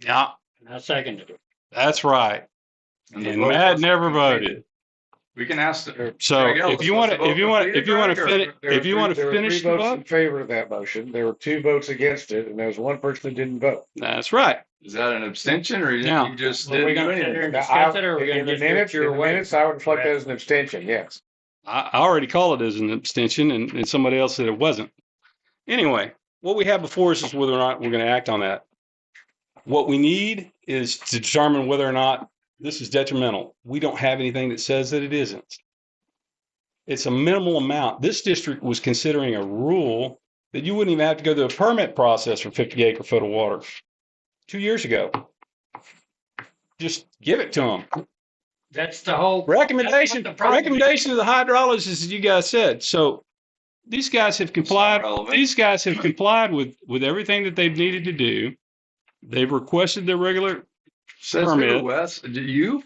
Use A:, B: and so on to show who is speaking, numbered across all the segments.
A: Yeah,
B: And I seconded it.
A: that's right.
C: And the
A: And
C: vote
A: Matt
C: was
A: never voted.
C: completed. We can ask, the-
A: So
C: Greg Ellis,
A: Oh, if you
C: was
A: want
C: the
A: to,
C: vote
A: if you want, to,
C: completed,
A: if you want to,
C: Greg, or-
A: finish,
C: there
A: if
C: were
A: you want
D: There
A: to
D: were
A: finish
D: three
A: the
D: votes In
A: vote,
D: favor of that motion, there were two votes against it, and there was one person that didn't vote.
A: that's right.
C: is that an abstention or you
A: Yeah.
C: you just
B: Well,
C: didn't
B: we
C: do
B: gonna sit
C: anything?
B: there and
D: Now,
B: discuss
D: I-
B: it, or we're
D: in
B: gonna
D: the
B: just do it
D: minutes- in
B: your
D: the
B: way?
D: minutes, I would reflect that as an abstention, yes.
A: I, I already called it as an abstention and, and somebody else said it wasn't. Anyway, what we have before us is whether or not we're going to act on that. What we need is to determine whether or not this is detrimental. We don't have anything that says that it isn't. It's a minimal amount. This district was considering a rule that you wouldn't even have to go through a permit process for fifty acre foot of water. Two years ago. Just give it to them.
B: That's the whole,
A: Recommendation,
B: That's what the problem
A: recommendation of the hydrologist, as you guys said. So these guys have complied,
C: Relevant.
A: these guys have complied with, with everything that they've needed to do. They've requested their regular,
C: Says
A: permit.
C: who, Wes? Do you?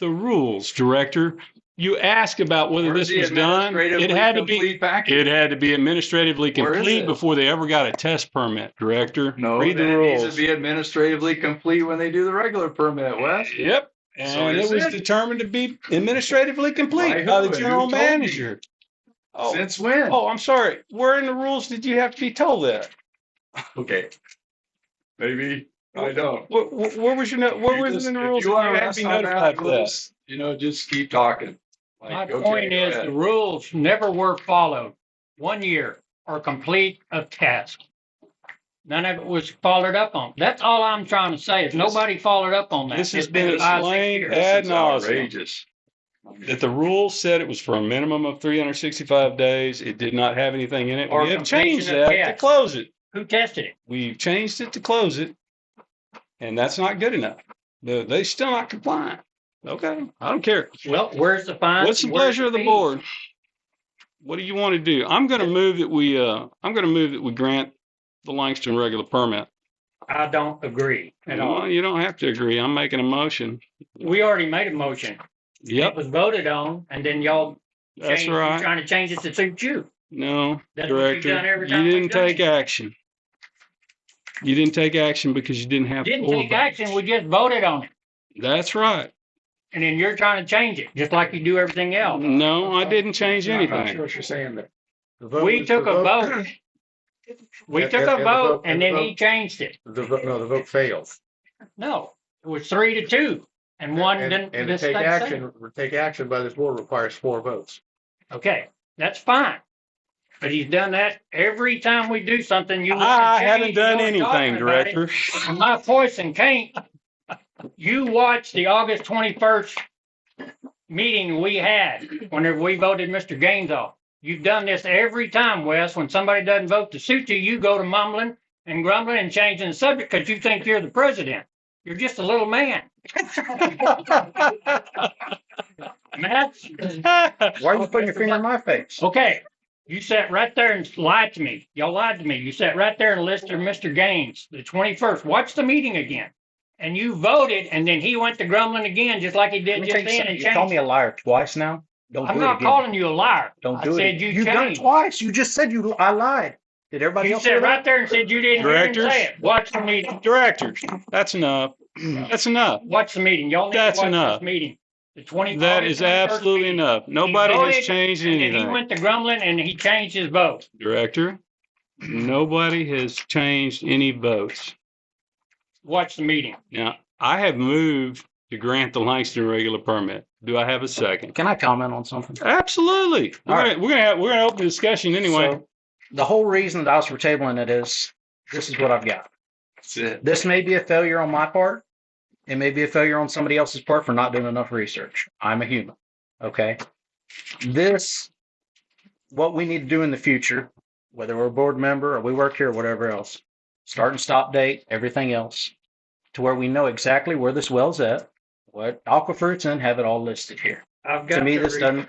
A: the rules, director. You ask about whether
C: Where's
A: this
C: the
A: was done. It
C: administratively
A: had to be,
C: complete package?
A: it had to be administratively
C: Where is
A: complete
C: it?
A: before they ever got a test permit, director.
C: No,
A: Read the
C: then it needs
A: rules.
C: to be administratively complete when they do the regular permit, Wes.
A: Yep.
C: So
A: And it
C: it's
A: was
C: it.
A: determined to be administratively
C: By
A: complete
C: who
A: by the
C: and who
A: general
C: told you?
A: manager. Oh,
C: Since when?
A: Oh, I'm sorry. Where in the rules did you have to be told that?
C: Okay. Maybe, I don't.
A: Where, where, where was your, no- where
C: You
A: was
C: just-
A: it in the
C: if
A: rules? that
C: You want
A: You
C: to
A: had to be
C: mess on
A: notified
C: that
A: for that.
C: rules, you know, just keep talking.
B: my
C: Like, okay,
B: point
C: go
B: is,
C: ahead.
B: the rules never were followed. One year or complete a task. None of it was followed up on. That's all I'm trying to say is nobody followed up on that.
A: This has
B: It's
A: been
B: five, six
A: explained
B: years.
A: ad
C: This is
A: nauseam.
C: outrageous. I mean,
A: That the rule said it was for a minimum of three hundred sixty-five days. It did not have anything in it.
B: Or
A: We have changed
B: completion of
A: that to
B: tasks.
A: close it.
B: Who tested it?
A: We've changed it to close it. And that's not good enough. They, they still not compliant. Okay, I don't care.
B: Well, where's the fine?
A: What's the
B: Where's
A: pleasure of the
B: fee?
A: board? What do you want to do? I'm going to move that we, uh, I'm going to move that we grant the Langston regular permit.
B: I don't agree at all.
A: Well, you don't have to agree. I'm making a motion.
B: We already made a motion. It
A: Yep,
B: was voted on and then y'all
A: that's
B: changed,
A: right.
B: trying to change it to suit you.
A: No,
B: That's what you've done
A: director,
B: every
A: you
B: time we've
A: didn't
B: done
A: take
B: it.
A: action. You didn't take action because you didn't have.
B: Didn't
A: full
B: take
A: vote.
B: action, we just voted on it.
A: That's right.
B: And then you're trying to change it, just like you do everything else.
A: No, I didn't change
D: I'm not sure
A: anything.
D: what you're saying there. The vote
B: We
D: was-
B: took
D: the
B: a vote. We
D: And-
B: took
D: and-
B: a
D: and the
B: vote
D: vote-
B: and
D: and the
B: then he
D: vote-
B: changed it.
D: The vote, no, the vote failed.
B: No, it was three to two and one
D: And-
B: didn't.
D: And to
B: this
D: take
B: that same.
D: action, take action by this board requires four votes.
B: Okay, that's fine. But he's done that every time we do something. You.
A: I haven't
B: You
A: done
B: weren't
A: anything,
B: talking about it.
A: director.
B: And my voice and Kane, you watched the August twenty-first meeting we had whenever we voted Mr. Gaines off. You've done this every time, Wes. When somebody doesn't vote to suit you, you go to mumbling and grumbling and changing the subject because you think you're the president. You're just a little man. And that's,
D: Why are you putting your finger in my face?
B: okay, you sat right there and lied to me. Y'all lied to me. You sat right there and listed Mr. Gaines, the twenty-first. Watch the meeting again. And you voted, and then he went to grumbling again, just like he
E: Let
B: did
E: me
B: just
E: tell you
B: then
E: something.
B: and
E: You called me
B: changed.
E: a liar twice now. Don't
B: I'm
E: do it
B: not
E: again.
B: calling you a liar.
E: Don't
B: I
E: do it.
B: said
E: again.
B: you
E: done it
B: changed.
E: twice. You just said you. I lied. Did everybody
B: You
E: else?
B: sat
E: hear that?
B: right there and said you didn't hear him
A: Directors?
B: say it. Watch the meeting.
A: Director, that's enough. That's enough.
B: Watch the meeting. Y'all need to
A: That's
B: watch
A: enough.
B: this meeting. The twenty.
A: That is absolutely enough. Nobody
B: voted,
A: has changed
B: And then he
A: anything.
B: went to grumbling and he changed his vote.
A: Director, nobody has changed any votes.
B: Watch the meeting.
A: Now, I have moved to grant the Langston regular permit. Do I have a second?
E: Can I comment on something?
A: Absolutely. We're
E: All right.
A: gonna, we're gonna, have- we're gonna open the discussion anyway.
E: So, the whole reason that I was for tabling it is this is what I've got.
C: That's it.
E: This may be a failure on my part. It may be a failure on somebody else's part for not doing enough research. I'm a human. Okay. This, what we need to do in the future, whether we're a board member or we work here or whatever else, start and stop date, everything else, to where we know exactly where this well's at, what aquifer it's in, have it all listed here.
B: I've got.
E: To me,
B: the
E: this
B: reason.
E: doesn't,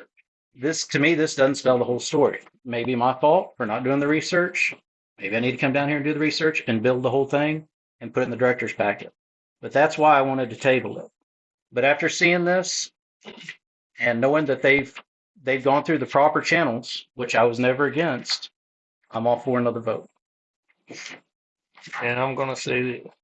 E: this, to me, this doesn't spell the whole story. Maybe my fault for not doing the research. Maybe I need to come down here and do the research and build the whole thing and put it in the director's packet. But that's why I wanted to table it. But after seeing this and knowing that they've, they've gone through the proper channels, which I was never against, I'm all for another vote.
F: And I'm gonna say that